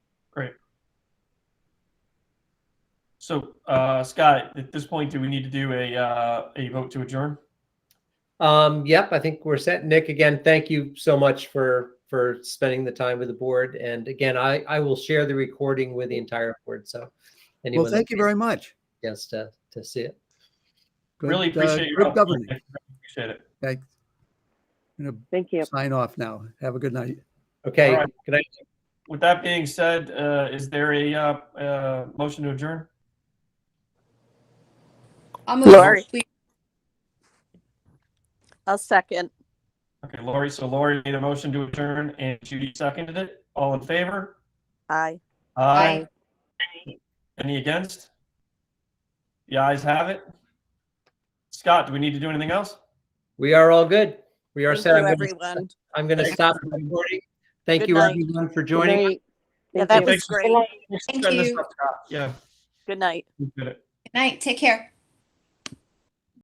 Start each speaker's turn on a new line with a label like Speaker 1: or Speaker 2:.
Speaker 1: Great. So, uh, Scott, at this point, do we need to do a, uh, a vote to adjourn?
Speaker 2: Um, yep, I think we're set. Nick, again, thank you so much for for spending the time with the board. And again, I I will share the recording with the entire board. So anyone
Speaker 3: Well, thank you very much.
Speaker 2: yes to to see it.
Speaker 3: Good,
Speaker 1: Really
Speaker 3: uh,
Speaker 1: appreciate your
Speaker 3: Good
Speaker 1: help.
Speaker 3: governing.
Speaker 1: Appreciate it.
Speaker 3: Thanks. I'm
Speaker 4: Thank you.
Speaker 3: gonna sign off now. Have a good night.
Speaker 2: Okay,
Speaker 1: All right.
Speaker 2: good night.
Speaker 1: With that being said, uh, is there a, uh, uh, motion to adjourn?
Speaker 5: I'll move
Speaker 4: Lori.
Speaker 5: to please-
Speaker 4: I'll second.
Speaker 1: Okay, Lori, so Lori made a motion to adjourn and Judy seconded it. All in favor?
Speaker 4: Aye.
Speaker 5: Aye.
Speaker 1: Any against? The ayes have it. Scott, do we need to do anything else?
Speaker 2: We are all good. We are
Speaker 4: Thank
Speaker 2: set.
Speaker 4: you,
Speaker 2: I'm gonna,
Speaker 4: everyone.
Speaker 2: I'm gonna
Speaker 1: Thanks,
Speaker 2: stop the recording. Thank
Speaker 4: Good
Speaker 2: you
Speaker 4: night.
Speaker 2: everyone for
Speaker 5: Good
Speaker 2: joining. us.
Speaker 5: night.
Speaker 4: Yeah,
Speaker 5: Thank
Speaker 4: that
Speaker 5: you.
Speaker 1: you.
Speaker 4: was great.
Speaker 1: Thanks for
Speaker 5: Thank
Speaker 1: setting this
Speaker 5: you.
Speaker 1: up, Scott. Yeah,
Speaker 4: Good night.
Speaker 1: we did it.
Speaker 5: Good night. Take care.